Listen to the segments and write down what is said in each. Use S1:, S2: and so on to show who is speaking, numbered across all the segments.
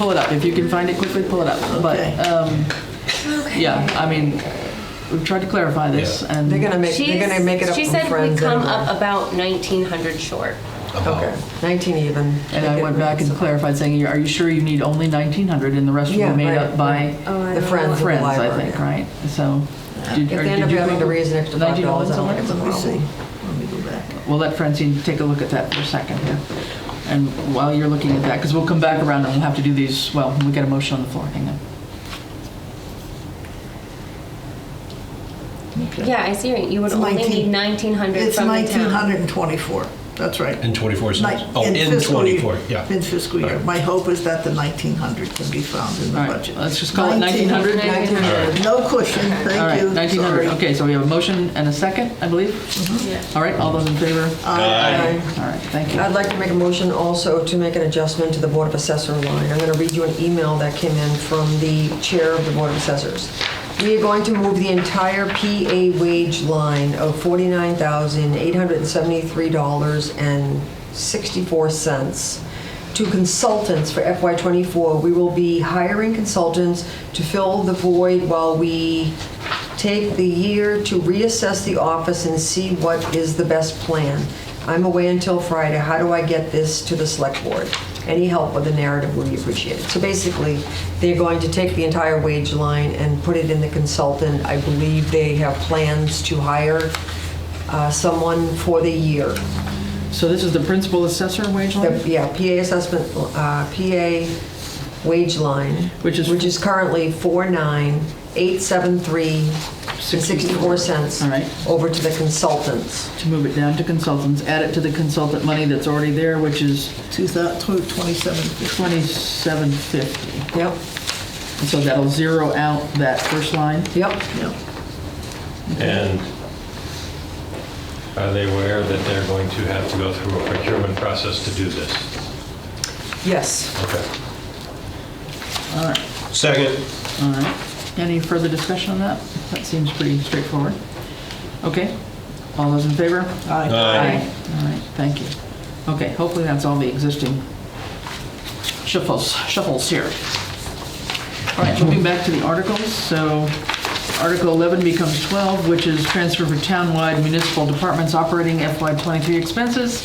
S1: pull it up. If you can find it quickly, pull it up.
S2: Okay.
S1: But, um, yeah, I mean, we've tried to clarify this and.
S2: They're gonna make, they're
S3: She's-
S2: gonna make it up
S3: She
S2: from
S3: said we
S2: friends.
S3: come
S2: anyway.
S3: up about 1,900 short.
S4: Uh,
S2: Okay, 19 even.
S1: And I went back and clarified saying, are you sure you need only 1,900 and the rest will
S2: Yeah,
S1: be made
S2: right,
S1: up by
S3: Oh, I
S2: The
S3: know.
S2: friends of the
S1: friends, I
S2: library.
S1: think, right? So. did-
S2: If
S1: or
S2: they end
S1: did
S2: up
S1: you
S2: having
S1: come
S2: to
S1: up-
S2: raise an extra five
S1: $19
S2: dollars, I
S1: somewhere?
S2: think it's a
S5: Let me see.
S2: problem.
S5: Let me go back.
S1: We'll let Francine take a look at that for a second here. And while you're looking at that, because we'll come back around and we'll have to do these, well, we get a motion on the floor, hang on.
S5: Okay.
S3: Yeah, I see, right. you would
S5: It's
S3: only
S5: 19
S3: need 1,900
S5: It's
S3: from the town.
S5: 1,924, that's right.
S4: In 24 cents?
S5: Ni-
S4: Oh, in
S5: fiscal year-
S4: 24, yeah.
S5: In fiscal year.
S4: Right.
S5: My hope is that the 1,900 can be found in the
S1: All right,
S5: budget.
S1: let's just call it 1,900.
S2: 19.
S5: No cushion,
S1: All
S5: thank
S1: right,
S5: you.
S1: 1,900,
S5: Sorry.
S1: okay, so we have a motion and a second, I believe? All right, all those in favor?
S2: Aye.
S1: All right, thank you.
S2: I'd like to make a motion also to make an adjustment to the Board of Assessor line. I'm going to read you an email that came in from the Chair of the Board of Assessors. We are going to move the entire PA wage line of $49,873.64 to consultants for FY24. We will be hiring consultants to fill the void while we take the year to reassess the office and see what is the best plan. I'm away until Friday, how do I get this to the select board? Any help with the narrative would be appreciated. So basically, they're going to take the entire wage line and put it in the consultant. I believe they have plans to hire uh, someone for the year.
S1: So this is the principal assessor wage
S2: The-
S1: line?
S2: Yeah, PA assessment, uh, PA wage line.
S1: Which is-
S2: Which is currently 49,873.64 cents.
S1: All right.
S2: Over to the consultants.
S1: To move it down to consultants, add it to the consultant money that's already there, which is
S5: 2,27.
S1: 2750.
S2: Yep,
S1: And so that'll zero out that first line?
S2: yep.
S6: And are they aware that they're going to have to go through a procurement process to do this?
S2: Yes.
S6: Okay.
S1: All right,
S4: Second.
S1: all right. Uh, Any further discussion on that? That seems pretty straightforward. Okay, all those in favor?
S4: Aye.
S1: All right, thank you. Okay, hopefully that's all the existing shuffles, shuffles here. All right, jumping back to the articles, so Article 11 becomes 12, which is transfer for townwide municipal departments operating FY23 expenses,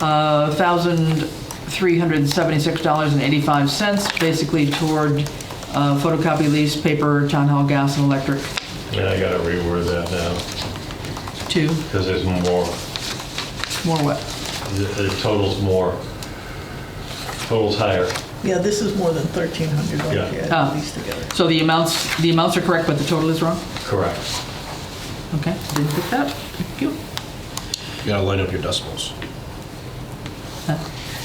S1: uh, $1,376.85, basically toward uh, photocopy lease, paper, town hall gas and electric,
S6: And I gotta reword that now,
S1: two,
S6: because there's more,
S1: more what?
S6: the the total's more, total's higher.
S5: Yeah, this is more than 1,300
S6: Yeah.
S5: if you
S1: Oh.
S5: add these together.
S1: So the amounts, the amounts are correct, but the total is wrong?
S6: Correct.
S1: Okay, didn't pick that. Thank you.
S4: You gotta line up your decimals.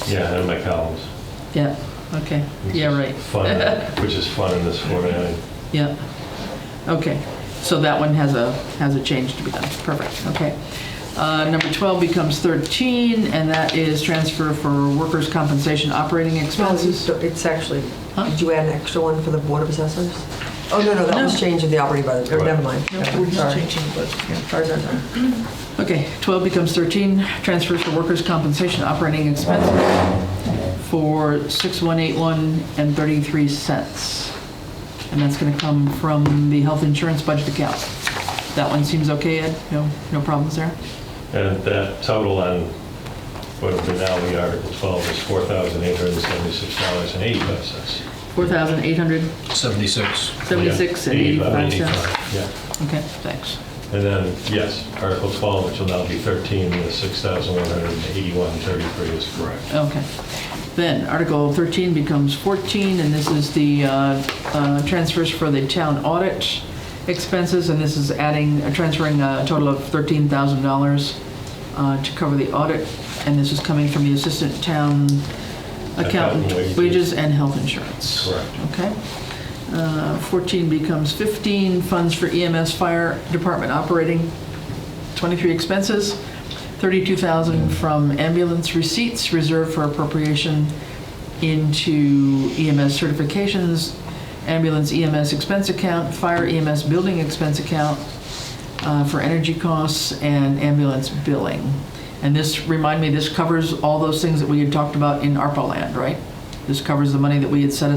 S6: Yeah, and my columns.
S1: Yeah, okay. Yeah, right.
S6: Fun, which is fun in this format.
S1: Yeah. Okay, so that one has a, has a change to be done. Perfect, okay. Uh, Number 12 becomes 13, and that is transfer for workers' compensation operating
S2: No, you
S1: expenses.
S2: st- It's actually,
S1: Huh?
S2: did you add an extra one for the Board of Assessors? Oh, no, no, that was
S1: No.
S2: changing the operating budget, Oh,
S6: Right.
S2: never mind.
S5: We're just
S2: Sorry.
S5: changing the budget. yeah.
S2: Sorry, sorry, sorry.
S1: Okay, 12 becomes 13, transfers for workers' compensation operating expenses for 6181 and 33 cents. And that's going to come from the health insurance budget account. That one seems okay, Ed? No, no problems there?
S6: And that total on, what would now be Article 12 is $4,876.85.
S1: 4,876
S4: 76.
S1: and 85 cents.
S6: 85, Yeah.
S1: Okay, thanks.
S6: And then, yes, Article 12, which will now be 13, the 6,181.33 is correct.
S1: Okay. Then Article 13 becomes 14, and this is the uh, uh, transfers for the town audit expenses, and this is adding, uh, transferring a total of $13,000 uh, to cover the audit, and this is coming from the assistant town accountant,
S6: Accountant wages.
S1: wages and health insurance.
S6: Correct.
S1: Okay. Uh, 14 becomes 15, funds for EMS fire department operating 23 expenses, 32,000 from ambulance receipts reserved for appropriation into EMS certifications, ambulance EMS expense account, fire EMS building expense account uh, for energy costs, and ambulance billing. And this, remind me, this covers all those things that we had talked about in ARPA land, right? This covers the money that we had set